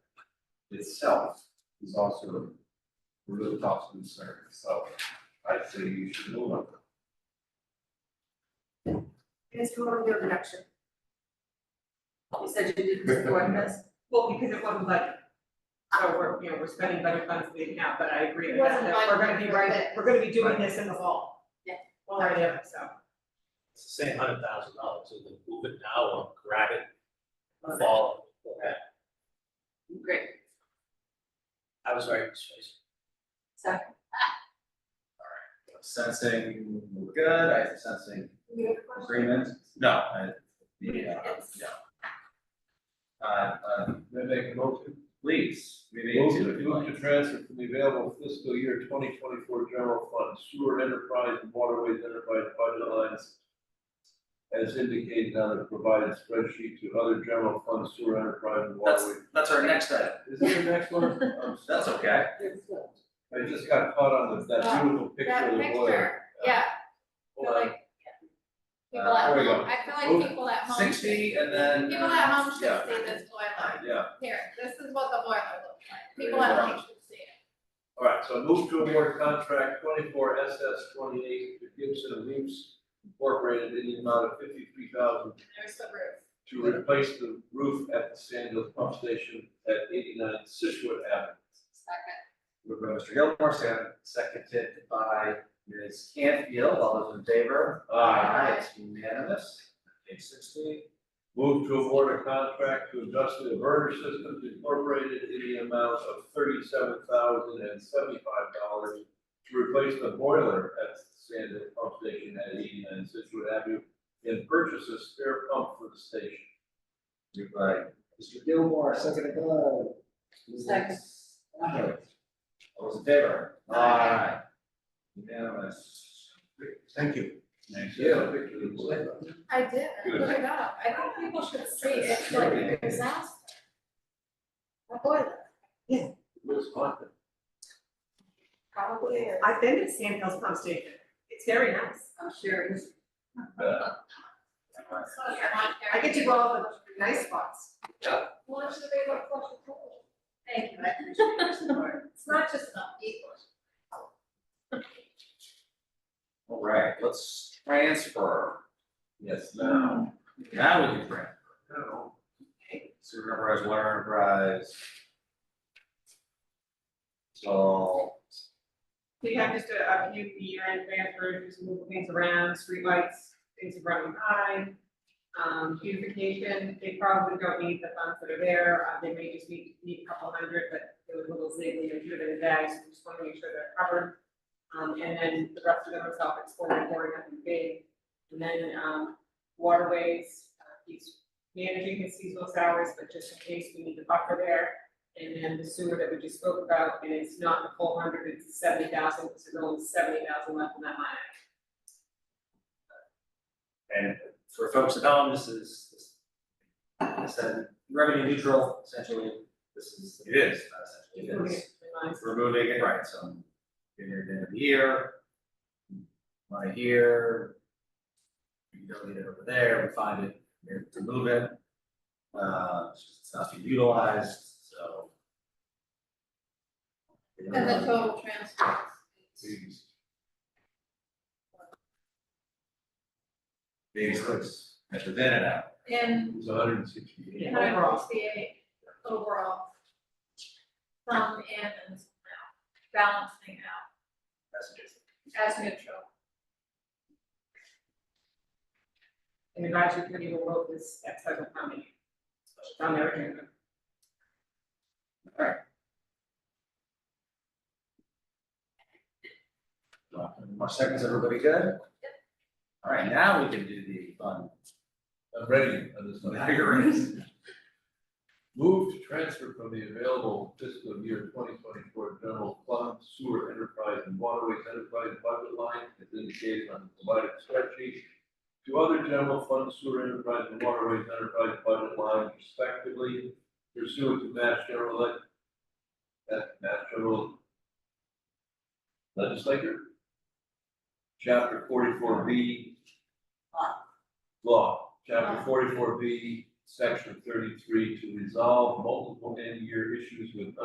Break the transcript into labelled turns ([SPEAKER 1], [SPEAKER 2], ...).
[SPEAKER 1] itself is also a rooftop concern, so I'd say you should move on.
[SPEAKER 2] It's totally your reduction. You said you didn't support this,
[SPEAKER 3] Well, because it wasn't budget. So we're, you know, we're spending budget funds we didn't have, but I agree
[SPEAKER 2] It
[SPEAKER 3] with that,
[SPEAKER 2] wasn't
[SPEAKER 3] that we're gonna
[SPEAKER 2] budgeted
[SPEAKER 3] be
[SPEAKER 2] for
[SPEAKER 3] right,
[SPEAKER 2] that.
[SPEAKER 3] we're gonna be doing this in the fall.
[SPEAKER 2] Yeah.
[SPEAKER 3] One way or the other, so.
[SPEAKER 4] It's the same hundred thousand dollars, so then move it now or grab it, fall, or that.
[SPEAKER 2] great,
[SPEAKER 4] I was very persuasive.
[SPEAKER 2] so
[SPEAKER 5] Sensing, we're good, I sensing
[SPEAKER 2] we have a question.
[SPEAKER 5] agreement, no, I, yeah,
[SPEAKER 2] It's-
[SPEAKER 5] uh, uh,
[SPEAKER 1] Then make a motion.
[SPEAKER 5] please, we need
[SPEAKER 1] Move
[SPEAKER 5] to,
[SPEAKER 1] to,
[SPEAKER 5] if you
[SPEAKER 1] move
[SPEAKER 5] like.
[SPEAKER 1] to transfer from the available fiscal year twenty twenty-four general fund sewer enterprise and waterways enterprise budget lines as indicated on the provided spreadsheet to other general fund sewer enterprise and
[SPEAKER 5] That's,
[SPEAKER 1] waterway.
[SPEAKER 5] that's our next item,
[SPEAKER 1] Is there the next one? I'm
[SPEAKER 5] that's
[SPEAKER 1] sorry.
[SPEAKER 5] okay,
[SPEAKER 1] I just got caught on the- that
[SPEAKER 2] Oh,
[SPEAKER 1] beautiful picture
[SPEAKER 6] That
[SPEAKER 1] of the lawyer.
[SPEAKER 6] picture, yeah, I
[SPEAKER 1] Hold
[SPEAKER 6] feel
[SPEAKER 1] on.
[SPEAKER 6] like, yeah. People
[SPEAKER 1] Uh, there
[SPEAKER 6] at
[SPEAKER 1] we go.
[SPEAKER 6] home, I feel like people at home, should-
[SPEAKER 5] sixty and then. uh,
[SPEAKER 6] people at home should
[SPEAKER 5] yeah.
[SPEAKER 6] see this boiler.
[SPEAKER 1] Yeah,
[SPEAKER 6] Here, this is what the boiler looks like,
[SPEAKER 5] There
[SPEAKER 6] people
[SPEAKER 5] you
[SPEAKER 6] at
[SPEAKER 5] go.
[SPEAKER 6] home should see it.
[SPEAKER 1] all right, so move to award contract twenty-four SS twenty-eight to Gibson and Leaps Incorporated in the amount of fifty-three thousand
[SPEAKER 6] There's the roof.
[SPEAKER 1] to replace the roof at the Sand Hill Pump Station at eighty-nine Situate Avenue.
[SPEAKER 6] Second,
[SPEAKER 5] Moved by Mr. Gilmore, second, seconded by Ms. Cantfield, all those in favor?
[SPEAKER 1] Aye.
[SPEAKER 5] It's unanimous, page sixty.
[SPEAKER 1] Move to award a contract to Industrial Burner Systems Incorporated in the amount of thirty-seven thousand and seventy-five dollars to replace the boiler at Sand Hill Pump Station at eighty-nine Situate Avenue and purchase a spare pump for the station.
[SPEAKER 5] Moved by Mr. Gilmore, seconded by. Ms.
[SPEAKER 2] Second.
[SPEAKER 5] Cantfield. All those in favor? Aye. Unanimous.
[SPEAKER 1] Thank you.
[SPEAKER 5] Thank
[SPEAKER 6] I did, I
[SPEAKER 1] Good.
[SPEAKER 6] put it up, I think people should see it, it's like a disaster. A boiler,
[SPEAKER 2] Probably is.
[SPEAKER 3] I've been to Sand Hills Pump Station, it's very nice.
[SPEAKER 2] I'm sure it is.
[SPEAKER 6] so it's not
[SPEAKER 3] I
[SPEAKER 6] there.
[SPEAKER 3] get to go all the nice spots.
[SPEAKER 6] Well, it should be like flush and cool.
[SPEAKER 2] Thank you, I appreciate your support.
[SPEAKER 6] It's not just an equal.
[SPEAKER 5] All right, let's transfer.
[SPEAKER 1] Yes, now.
[SPEAKER 5] Now, now we can transfer.
[SPEAKER 1] No.
[SPEAKER 5] Sewer enterprise, water enterprise. So,
[SPEAKER 3] We have just a, a few year-end transfers, just move things around, streetlights, things are running high. Um, beautification, they probably don't need the funds that are there, uh, they may just need, need a couple hundred, but it was a little ziggly and driven in bags, so just wanna make sure they're covered. Um, and then the rest of them are self-exploring, boring, nothing big. And then, um, waterways, uh, he's managing his seasonal salaries, but just in case we need the buffer there. And then the sewer that we just spoke about, and it's not the full hundred, it's seventy thousand, so there's only seventy thousand left in that line.
[SPEAKER 4] And for folks at home, this is, this this is revenue neutral, essentially, this is. It is.
[SPEAKER 5] uh,
[SPEAKER 3] Just moving it between lines.
[SPEAKER 5] removing it, right, so. Here, then here. Right here. You don't need it over there, we find it, we have to move it. Uh, it's just- it's not being utilized, so.
[SPEAKER 6] And the total transfer is
[SPEAKER 5] Maybe six, at the uh, then and out.
[SPEAKER 6] in
[SPEAKER 1] It was hundred and sixty-eight.
[SPEAKER 3] Yeah,
[SPEAKER 6] Hundred and
[SPEAKER 3] overall.
[SPEAKER 6] sixty-eight overall. Some in and some out, balancing out
[SPEAKER 5] That's it.
[SPEAKER 6] as neutral.
[SPEAKER 3] And the advisory committee will vote this at seven, how many? On their agenda.
[SPEAKER 5] Well, any More seconds, everybody good? All right, now we can do the fun.
[SPEAKER 1] I'm ready on this one.
[SPEAKER 5] Now you're in.
[SPEAKER 1] Move to transfer from the available fiscal year twenty twenty-four general fund sewer enterprise and waterways enterprise budget line as indicated on the provided spreadsheet to other general fund sewer enterprise and waterways enterprise budget line respectively pursuant to Mass General Leg- that Mass General Legislature, Chapter forty-four B. Law, Chapter forty-four B, Section thirty-three, to resolve multiple end-year issues with